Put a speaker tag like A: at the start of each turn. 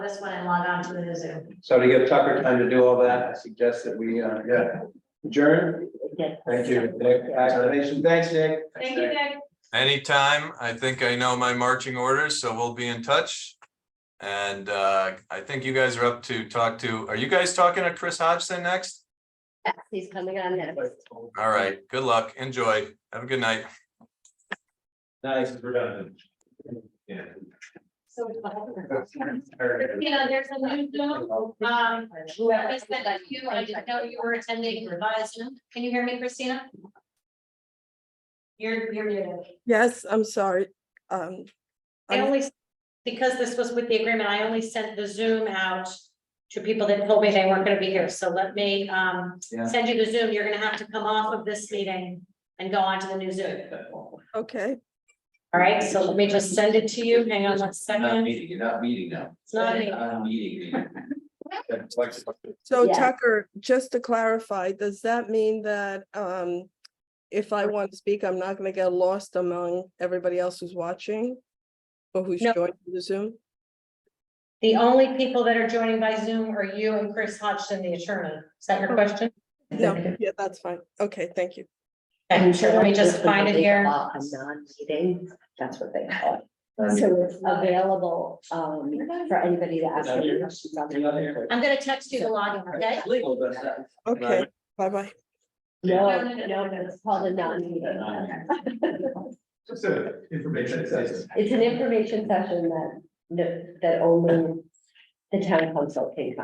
A: this one and log on to the Zoom.
B: So to give Tucker time to do all that, I suggest that we, uh,
C: Yeah.
B: adjourn.
A: Yes.
B: Thank you, Nick, Activation. thanks, Nick.
A: Thank you, Nick.
D: Anytime. I think I know my marching orders, so we'll be in touch. And uh, I think you guys are up to talk to, are you guys talking to Chris Hodgson next?
E: Yes, He's coming on next.
D: All right, good luck. Enjoy. Have a good night.
B: Nice.
C: Redundant. Yeah.
A: So, You know, there's a new Zoom, um, that was sent to you, I didn't know you were attending revised Zoom. Can you hear me, Christina? You're, you're muted.
F: Yes, I'm sorry. Um,
A: I
F: I'm-
A: only, because this was with the agreement, I only sent the Zoom out to people that told me they weren't gonna be here, so let me, um,
B: Yeah.
A: send you the Zoom, you're gonna have to come off of this meeting and go on to the new Zoom.
F: okay,
A: All right, so let me just send it to you, hang on one second,
C: meeting, you're not meeting now.
A: it's not me.
C: Not meeting.
F: so
E: Yeah.
F: Tucker, just to clarify, does that mean that um. If I want to speak, I'm not gonna get lost among everybody else who's watching? Or who's
A: No.
F: joining the Zoom?
A: The only people that are joining by Zoom are you and Chris Hodgson, the attorney. Is that your question?
F: No, yeah, that's fine. Okay, thank you.
A: And so let me just
E: This was
A: find it
E: a
A: here.
E: Non-meeting, that's what they call it. So it's available um for anybody to ask any questions on. the-
A: I'm gonna text you the login, okay?
B: Legal does that.
F: Okay, bye bye.
E: No, no, no, no, it's called a non-meeting.
C: Just a information session.
E: It's an information session that that only the town council can come.